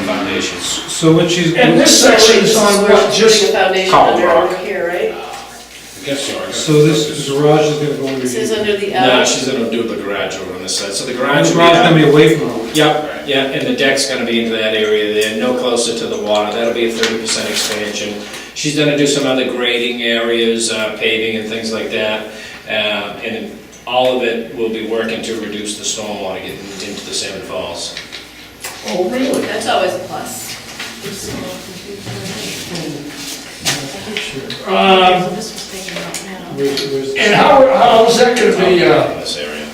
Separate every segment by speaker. Speaker 1: foundation.
Speaker 2: So what she's.
Speaker 3: And this section is on
Speaker 4: We're
Speaker 3: what
Speaker 4: putting a
Speaker 3: just,
Speaker 4: foundation
Speaker 1: Column
Speaker 4: under
Speaker 1: Rock.
Speaker 4: over here, right?
Speaker 1: I guess so. I guess-
Speaker 2: So this garage is gonna go under.
Speaker 4: This
Speaker 2: here.
Speaker 4: is under the
Speaker 1: No,
Speaker 4: L.
Speaker 1: she's gonna do the garage over on this side, so the
Speaker 2: And
Speaker 1: garage
Speaker 2: The
Speaker 1: will be
Speaker 2: garage is
Speaker 1: out.
Speaker 2: gonna be away from home.
Speaker 1: Yep, yeah, and the deck's gonna be into that area there, no closer to the water, that'll be a thirty percent expansion. She's gonna do some other grading areas, uh, paving and things like that, uh, and all of it will be working to reduce the stormwater getting into the Salmon Falls.
Speaker 3: oh, really?
Speaker 4: That's always a plus.
Speaker 3: Um, And how, how's that gonna be, uh,
Speaker 1: In this area.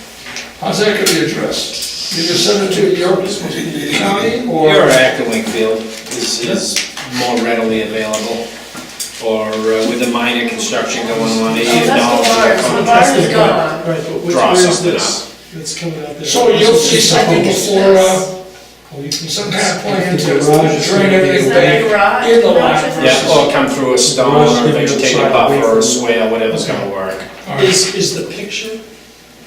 Speaker 3: how's that gonna be addressed? You just send it to the Yorkers, the county, or?
Speaker 1: Your Act of Wakefield is, is more readily available, or uh, with the minor construction going on, they
Speaker 4: Oh,
Speaker 1: use dollars.
Speaker 4: that's the bar, so the bar is gone.
Speaker 5: Right, but which,
Speaker 1: Draw
Speaker 5: where is
Speaker 1: something
Speaker 5: this? That's coming out there.
Speaker 3: So you'll see something before, uh,
Speaker 2: Oh, you can-
Speaker 3: some kind of plan
Speaker 2: The
Speaker 3: to
Speaker 2: garage is
Speaker 3: drain
Speaker 2: gonna be-
Speaker 3: everything
Speaker 4: Is
Speaker 3: back
Speaker 4: that a garage? oh,
Speaker 3: in the
Speaker 4: Garage is-
Speaker 3: lot
Speaker 1: Yeah, or come through a stone, or vegetative buffer, or a swale, whatever's gonna work.
Speaker 5: Is, is the picture,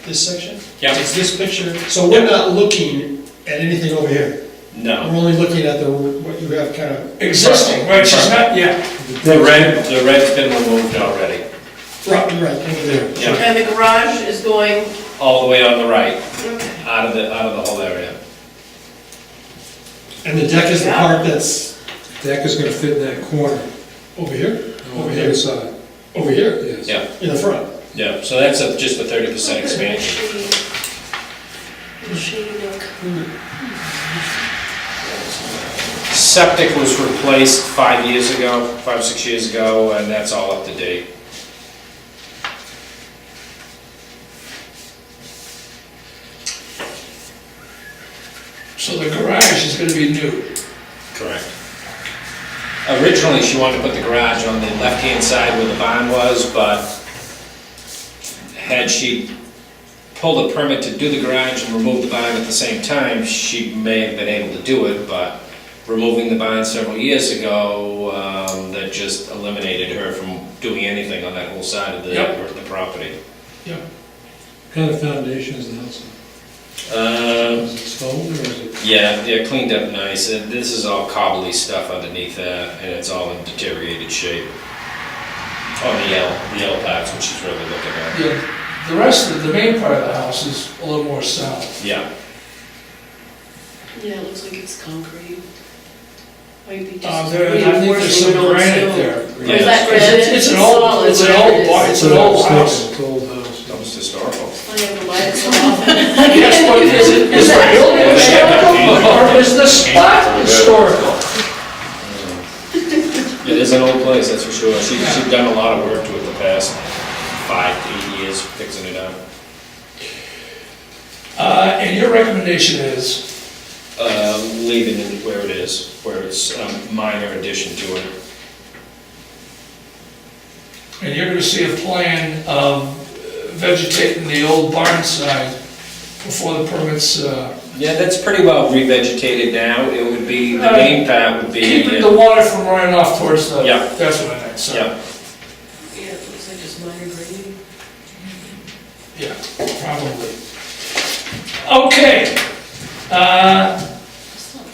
Speaker 5: this section?
Speaker 1: Yeah.
Speaker 5: It's this picture, so we're not looking at anything over here. We're
Speaker 1: No.
Speaker 5: only looking at the, what you have kind of,
Speaker 3: existing, which is not yet.
Speaker 1: The red, the red's been removed already,
Speaker 5: right, right, over there.
Speaker 1: yeah,
Speaker 4: And the garage is going,
Speaker 1: all the way on the right,
Speaker 4: okay.
Speaker 1: out of the, out of the whole area.
Speaker 5: And the deck is the part that's
Speaker 2: Deck is gonna fit in that corner,
Speaker 5: over here,
Speaker 2: on
Speaker 5: over
Speaker 2: the
Speaker 5: here,
Speaker 2: other side,
Speaker 5: over here,
Speaker 2: yes.
Speaker 1: Yeah.
Speaker 5: in the front.
Speaker 1: Yeah, so that's a- just a thirty percent expansion. Septic was replaced five years ago, five, six years ago, and that's all up to date.
Speaker 3: So the garage is gonna be new.
Speaker 1: Correct. Originally, she wanted to put the garage on the left-hand side where the barn was, but had she pulled a permit to do the garage and remove the barn at the same time, she may have been able to do it, but removing the barn several years ago, um, that just eliminated her from doing anything on that whole side of the,
Speaker 3: Yep.
Speaker 1: the property.
Speaker 2: Kind of foundation is the house,
Speaker 1: Um,
Speaker 2: is it stone or is it?
Speaker 1: Yeah, yeah, cleaned up nice. Uh, This is all cobbly stuff underneath that, and it's all in deteriorated shape. On the yellow, the yellow parts, which is really looking at.
Speaker 3: The the rest of, the main part of the house is a little more solid.
Speaker 1: Yeah,
Speaker 4: Yeah, it looks like it's concrete. Might be just.
Speaker 3: Uh, there, I think there's
Speaker 4: reinforcing
Speaker 3: some
Speaker 4: it on
Speaker 3: granite
Speaker 4: stone.
Speaker 3: there.
Speaker 1: Yeah.
Speaker 4: Is that
Speaker 3: It's-
Speaker 4: granite?
Speaker 3: It's an old,
Speaker 4: solid,
Speaker 3: it's an
Speaker 4: whatever
Speaker 3: old,
Speaker 4: it
Speaker 3: bar-
Speaker 4: is.
Speaker 3: it's an old
Speaker 2: It's
Speaker 3: house.
Speaker 2: It's an old house.
Speaker 1: that was historical.
Speaker 4: I don't know why it's so off.
Speaker 3: Yes, but is it, is the building historical or is the spot historical?
Speaker 1: Mm. It is an old place, that's for sure. She, she's done a lot of work to it the past five, eight years fixing it up.
Speaker 3: Uh, and your recommendation is,
Speaker 1: Uh, leaving it where it is, where it's a minor addition to it.
Speaker 3: and you're gonna see a plan of vegetating the old barn side before the permits, uh,
Speaker 1: Yeah, that's pretty well revegetated now. It would be, the main part would be.
Speaker 3: keeping the water from running off towards the,
Speaker 1: Yeah.
Speaker 3: that's what I meant, so,
Speaker 1: Yeah,
Speaker 4: Yeah, it looks like it's minor grading.
Speaker 3: yeah, probably. Okay, uh,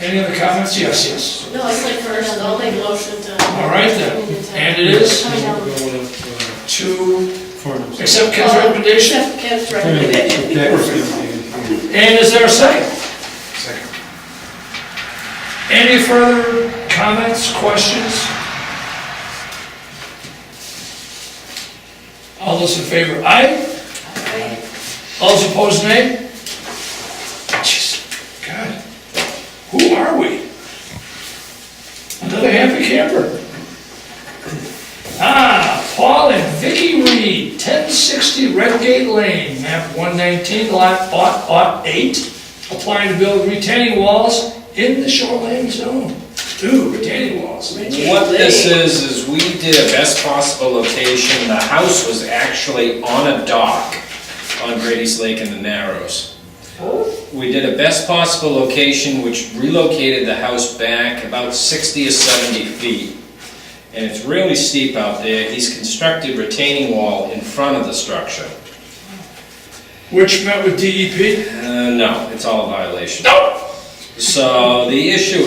Speaker 3: any other comments? Yes, yes.
Speaker 4: No, it's like first, I'll make motion to.
Speaker 3: All right then, and it is
Speaker 4: Coming down.
Speaker 2: Going up, uh,
Speaker 3: to
Speaker 2: farmhouse.
Speaker 3: accept Ken's recommendation,
Speaker 4: Except Ken's
Speaker 2: Anyway,
Speaker 4: recommendation.
Speaker 2: the Deck is gonna be in here.
Speaker 3: and is there a second? Second. Any further comments, questions? All those in favor, aye? All those opposed, nay? Jeez, God, who are we? Another happy camper. Ah, Paul and Vicky Reed, 1060 Redgate Lane, map 119, lot aught, aught 8, applying to build retaining walls in the shoreline zone. Two retaining walls.
Speaker 1: What this is, is we did a best possible location, the house was actually on a dock on Grady's Lake in the Narrows. We did a best possible location, which relocated the house back about sixty or seventy feet. And it's really steep out there, he's constructed retaining wall in front of the structure.
Speaker 3: Which met with E DEP?
Speaker 1: Uh, no, it's all a violation.
Speaker 3: No!
Speaker 1: So the issue